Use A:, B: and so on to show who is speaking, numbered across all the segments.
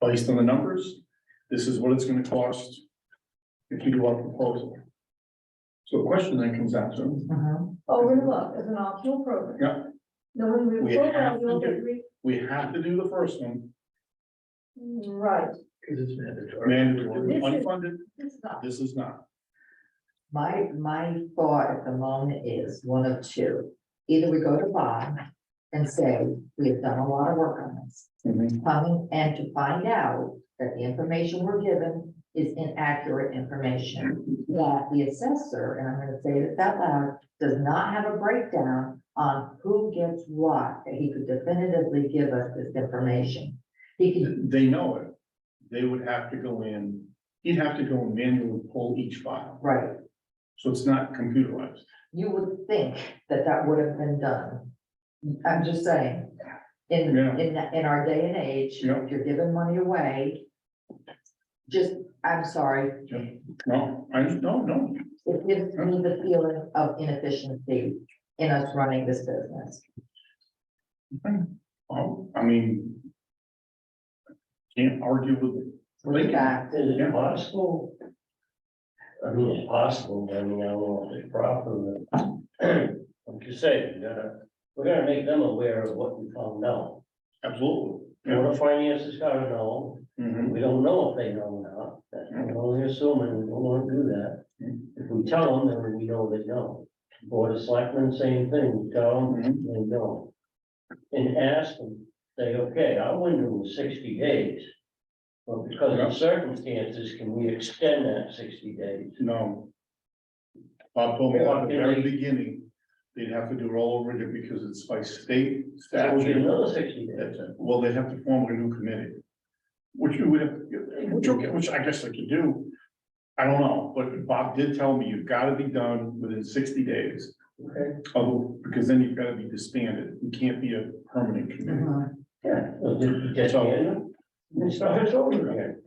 A: Based on the numbers, this is what it's gonna cost if you do our proposal. So the question then comes out to,
B: Uh-huh.
C: Oh, Overlook is an optional program.
A: Yeah.
C: No one will.
A: We have to
C: will
A: do-
C: agree-
A: we have to do the first one,
C: Right,
D: Because it's mandatory.
A: mandatory,
C: This is-
A: unfunded,
C: it's not.
A: this is not.
B: My, my thought at the moment is one of two. Either we go to Bob and say, we have done a lot of work on this.
C: Mhm.
B: Coming and to find out that the information we're given is inaccurate information. That the assessor, and I'm gonna say it that loud, does not have a breakdown on who gets what, that he could definitively give us this information. He could
A: They know it. They would have to go in, he'd have to go and manually pull each file,
B: right,
A: so it's not computerized.
B: you would think that that would have been done. I'm just saying, in,
A: Yeah.
B: in, the- in our day and age,
A: Yeah.
B: if you're giving money away, just, I'm sorry,
A: No, I, no, no,
B: it gives me the feeling of inefficiency in us running this business.
A: oh, I mean. Can't argue with it.
B: In fact,
D: Is it possible? I mean, it's possible, I mean, I don't know if it's proper, but I'm just saying, we gotta, we're gonna make them aware of what we found out.
A: Absolutely.
D: The Board of Finance has gotta know,
A: Mhm.
D: we don't know if they know or not, that's what we're only assuming, we don't wanna do that. If we tell them, then we know they know. Board of Selectmen, same thing, We tell them,
A: Mhm.
D: they know. And ask them, say, okay, our window was sixty days. But because of circumstances, can we extend that sixty days?
A: No. Bob told me at the
D: Yeah,
A: very
D: they-
A: beginning, they'd have to do it all over again because it's by state
D: That would be
A: statute.
D: another sixty days.
A: That's it. Well, they'd have to form a new committee. Which you would have, which, okay, which I guess they could do. I don't know, but Bob did tell me you've gotta be done within sixty days.
D: Okay.
A: Although, because then you've gotta be disbanded. You can't be a permanent committee.
B: uh-huh.
D: Yeah. So did you get in? And start over again.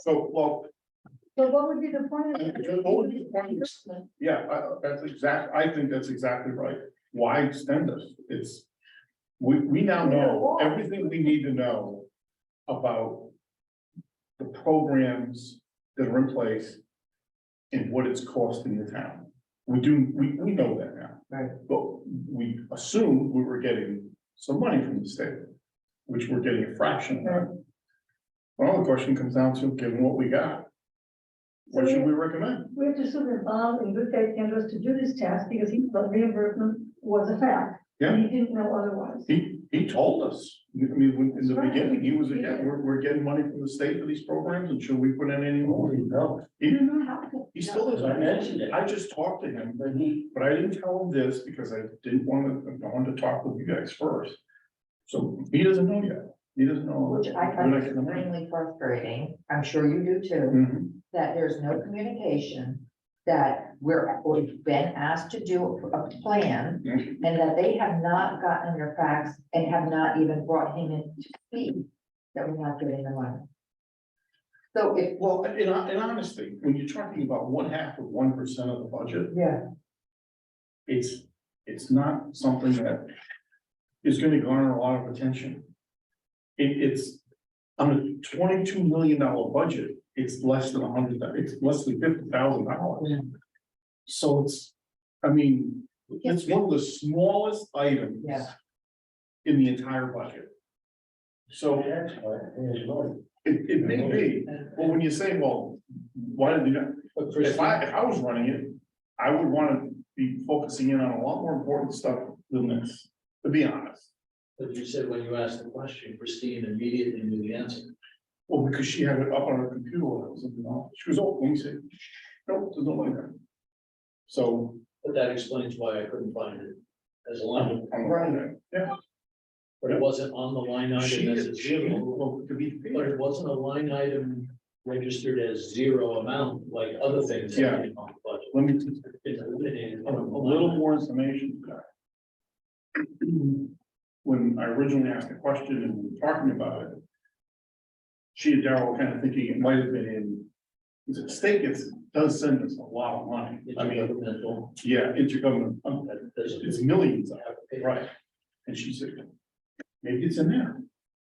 A: So, well,
C: So what would be the point? of it?
A: What would be the point of this? Yeah, I- I- that's exact, I think that's exactly right. Why extend this? It's, we, we now know everything we need to know about the programs that are in place and what it's costing the town. We do, we, we know that now.
B: Right.
A: But we assumed we were getting some money from the state, which we're getting a fraction of. Well, the question comes down to, given what we got, what should we recommend?
C: We have to assume that Bob in good faith came to us to do this task because he thought reimbursement was a fact.
A: Yeah.
C: He didn't know otherwise.
A: He, he told us, I mean, when- in the
C: That's right.
A: beginning, he was, again, we're, we're getting money from the state for these programs, and should we put in any more?
D: Holy cow.
A: He didn't know,
C: How could-
A: he still
D: As I
A: isn't.
D: mentioned it,
A: I just talked to him,
D: but he,
A: but I didn't tell him this because I didn't want to, I wanted to talk with you guys first. So he doesn't know yet, he doesn't know.
B: which I
A: We're
B: find
A: not getting the money.
B: extremely frustrating, I'm sure you do too.
A: Mhm.
B: that there's no communication, that we're, we've been asked to do a plan,
A: Mhm.
B: and that they have not gotten their facts and have not even brought him in to speak, that we're not getting the money. So it,
A: Well, in, hon- in honesty, when you're talking about one half of one percent of the budget,
B: yeah,
A: it's, it's not something that is gonna garner a lot of attention. It, it's, on a twenty-two million dollar budget, it's less than a hundred, thou- it's less than fifty thousand dollars.
B: Yeah.
A: So it's, I mean, it's one of the smallest items
B: Yeah.
A: in the entire budget. So
D: that's why, there's money.
A: it, it may be, well, when you say, well, why did they not,
D: But
A: if
D: Christine,
A: I, if I was running it, I would wanna be focusing in on a lot more important stuff than this, to be honest.
E: But you said when you asked the question, Christine immediately knew the answer.
A: Well, because she had it up on her computer, when I was in the office. she was, oh, let me see, no, there's no like that. So,
E: But that explains why I couldn't find it as a line,
A: I'm, I'm, yeah,
E: but it wasn't on the line
A: she,
E: item as a
A: she,
E: zero.
A: well, to be
E: But
A: fair,
E: it wasn't a line item registered as zero amount like other things. that
A: Yeah.
E: came on the budget.
A: let me, just-
E: It's eliminated
A: a
E: from the
A: little
E: line.
A: more information. When I originally asked the question and we were talking about it. She and Daryl were kind of thinking it might have been in, the state gets, does send us a lot of money,
E: It's
A: I mean,
E: governmental,
A: yeah, intergovernmental,
E: that doesn't
A: it's millions of
E: have to pay.
A: Right, and she said, maybe it's in there.